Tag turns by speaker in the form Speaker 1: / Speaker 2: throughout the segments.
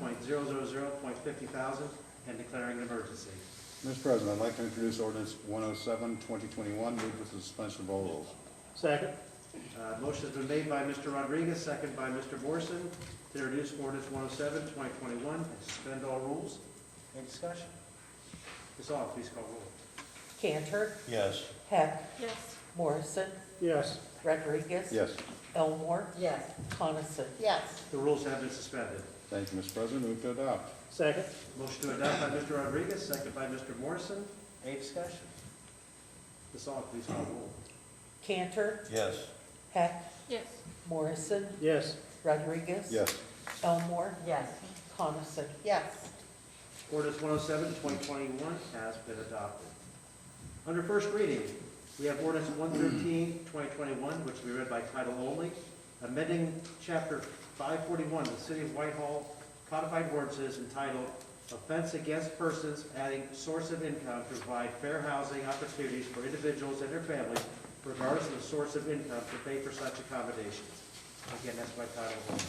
Speaker 1: 401.000.50 thousand and declaring an emergency.
Speaker 2: Mr. President, I'd like to introduce ordinance 107, 2021, move with the suspension of all rules.
Speaker 3: Second.
Speaker 1: Uh, Motion's been made by Mr. Rodriguez, second by Mr. Morrison, to introduce ordinance 107, 2021, and suspend all rules. Any discussion? Ms. Aug, please call roll.
Speaker 4: Cantor,
Speaker 2: Yes.
Speaker 4: Heck,
Speaker 5: Yes.
Speaker 4: Morrison,
Speaker 3: Yes.
Speaker 4: Rodriguez.
Speaker 2: Yes.
Speaker 4: Elmore,
Speaker 5: Yes.
Speaker 4: Coniston.
Speaker 5: Yes.
Speaker 1: The rules have been suspended.
Speaker 2: Thank you, Mr. President, move to adopt.
Speaker 3: Second.
Speaker 1: Motion to adopt by Mr. Rodriguez, second by Mr. Morrison. Any discussion? Ms. Aug, please call roll.
Speaker 4: Cantor,
Speaker 2: Yes.
Speaker 4: Heck,
Speaker 5: Yes.
Speaker 4: Morrison,
Speaker 3: Yes.
Speaker 4: Rodriguez.
Speaker 2: Yes.
Speaker 4: Elmore,
Speaker 5: Yes.
Speaker 4: Coniston.
Speaker 5: Yes.
Speaker 1: Ordinance 107, 2021 has been adopted. Under first reading, we have ordinance 113, 2021, which will be read by title only, amending Chapter 541 of the City of Whitehall codified ordinances entitled Offense Against Persons Adding Source of Income to Provide Fair Housing Opportunities for Individuals and Their Families Regardless of the Source of Income to Pay for Such Accommodations. Again, that's by title only.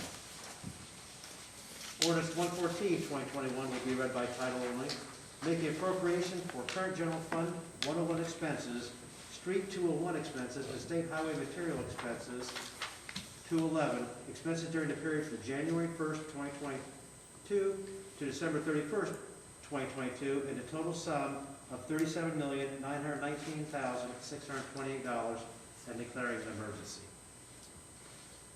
Speaker 1: Ordinance 114, 2021 will be read by title only, making appropriation for current general fund 101 expenses, street 201 expenses, and state highway material expenses, 211, expenses during the period from January 1st, 2022 to December 31st, 2022, in a total sum of $37,919,628 and declaring an emergency.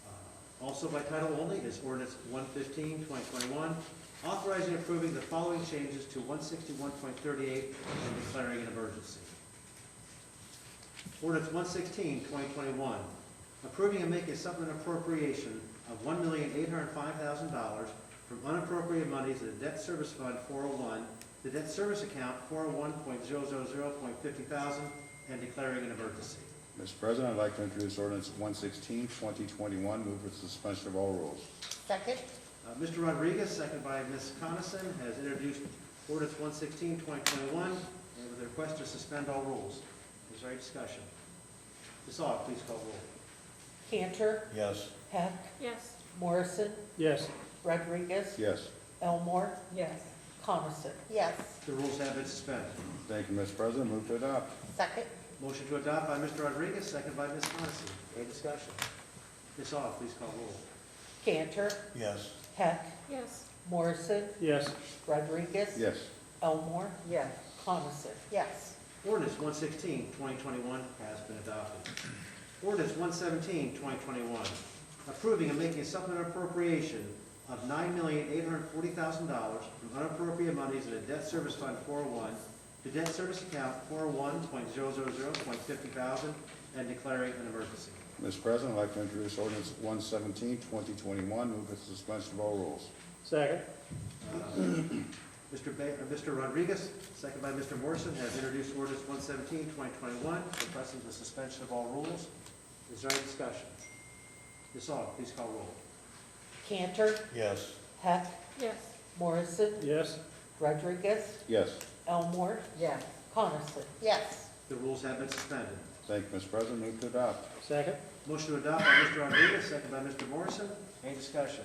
Speaker 1: Uh, Also by title only is ordinance 115, 2021, authorizing and approving the following changes to 161.38 and declaring an emergency. Ordinance 116, 2021, approving and making a supplemental appropriation of $1,805,000 from unappropriated money to the debt service fund 401, the debt service account 401.000.50 thousand, and declaring an emergency.
Speaker 2: Mr. President, I'd like to introduce ordinance 116, 2021, move with the suspension of all rules.
Speaker 5: Second?
Speaker 1: Uh, Mr. Rodriguez, second by Ms. Coniston, has introduced ordinance 116, 2021, and with a request to suspend all rules. Is there any discussion? Ms. Aug, please call roll.
Speaker 4: Cantor,
Speaker 2: Yes.
Speaker 4: Heck,
Speaker 5: Yes.
Speaker 4: Morrison,
Speaker 3: Yes.
Speaker 4: Rodriguez,
Speaker 2: Yes.
Speaker 4: Elmore,
Speaker 5: Yes.
Speaker 4: Coniston.
Speaker 5: Yes.
Speaker 1: The rules have been suspended.
Speaker 2: Thank you, Mr. President, move to adopt.
Speaker 5: Second?
Speaker 1: Motion to adopt by Mr. Rodriguez, second by Ms. Coniston. Any discussion? Ms. Aug, please call roll.
Speaker 4: Cantor,
Speaker 2: Yes.
Speaker 4: Heck,
Speaker 5: Yes.
Speaker 4: Morrison,
Speaker 3: Yes.
Speaker 4: Rodriguez.
Speaker 2: Yes.
Speaker 4: Elmore,
Speaker 5: Yes.
Speaker 4: Coniston.
Speaker 5: Yes.
Speaker 1: Ordinance 116, 2021 has been adopted. Ordinance 117, 2021, approving and making a supplemental appropriation of $9,840,000 from unappropriate monies in the debt service fund 401 to debt service account 401.000.50 thousand and declaring an emergency.
Speaker 2: Mr. President, I'd like to introduce ordinance 117, 2021, move with the suspension of all rules.
Speaker 3: Second.
Speaker 1: Uh, Mr. Ba- or Mr. Rodriguez, second by Mr. Morrison, has introduced ordinance 117, 2021, requesting the suspension of all rules. Is there any discussion? Ms. Aug, please call roll.
Speaker 4: Cantor,
Speaker 2: Yes.
Speaker 4: Heck,
Speaker 5: Yes.
Speaker 4: Morrison,
Speaker 3: Yes.
Speaker 4: Rodriguez,
Speaker 2: Yes.
Speaker 4: Elmore,
Speaker 5: Yes.
Speaker 4: Coniston.
Speaker 5: Yes.
Speaker 1: The rules have been suspended.
Speaker 2: Thank you, Mr. President, move to adopt.
Speaker 3: Second.
Speaker 1: Motion to adopt by Mr. Rodriguez, second by Mr. Morrison. Any discussion?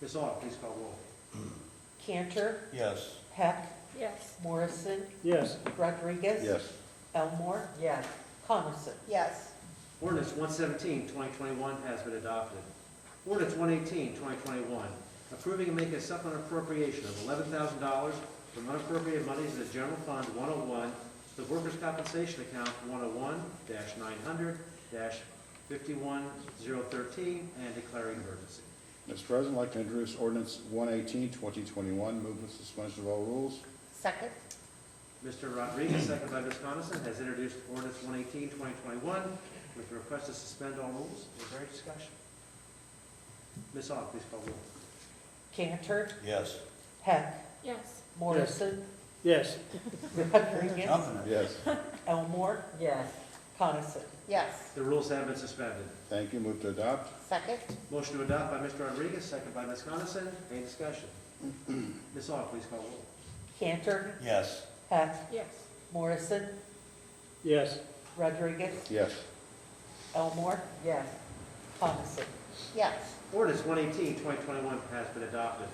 Speaker 1: Ms. Aug, please call roll.
Speaker 4: Cantor,
Speaker 2: Yes.
Speaker 4: Heck,
Speaker 5: Yes.
Speaker 4: Morrison,
Speaker 3: Yes.
Speaker 4: Rodriguez.
Speaker 2: Yes.
Speaker 4: Elmore,
Speaker 5: Yes.
Speaker 4: Coniston.
Speaker 5: Yes.
Speaker 1: Ordinance 117, 2021 has been adopted. Ordinance 118, 2021, approving and making a supplemental appropriation of $11,000 from unappropriated monies in the General Fund 101, the Workers' Compensation Account 101-900-51013, and declaring emergency.
Speaker 2: Mr. President, I'd like to introduce ordinance 118, 2021, move with suspension of all rules.
Speaker 5: Second?
Speaker 1: Mr. Rodriguez, second by Ms. Coniston, has introduced ordinance 118, 2021, with a request to suspend all rules. Is there any discussion? Ms. Aug, please call roll.
Speaker 4: Cantor,
Speaker 2: Yes.
Speaker 4: Heck,
Speaker 5: Yes.
Speaker 4: Morrison,
Speaker 3: Yes.
Speaker 4: Rodriguez,
Speaker 2: Yes.
Speaker 4: Elmore,
Speaker 5: Yes.
Speaker 4: Coniston.
Speaker 5: Yes.
Speaker 1: The rules have been suspended.
Speaker 2: Thank you, move to adopt.
Speaker 5: Second?
Speaker 1: Motion to adopt by Mr. Rodriguez, second by Ms. Coniston. Any discussion? Ms. Aug, please call roll.
Speaker 4: Cantor,
Speaker 2: Yes.
Speaker 4: Heck,
Speaker 5: Yes.
Speaker 4: Morrison,
Speaker 3: Yes.
Speaker 4: Rodriguez,
Speaker 2: Yes.
Speaker 4: Elmore,
Speaker 5: Yes.
Speaker 4: Coniston.
Speaker 5: Yes.
Speaker 1: Ordinance 118, 2021 has been adopted.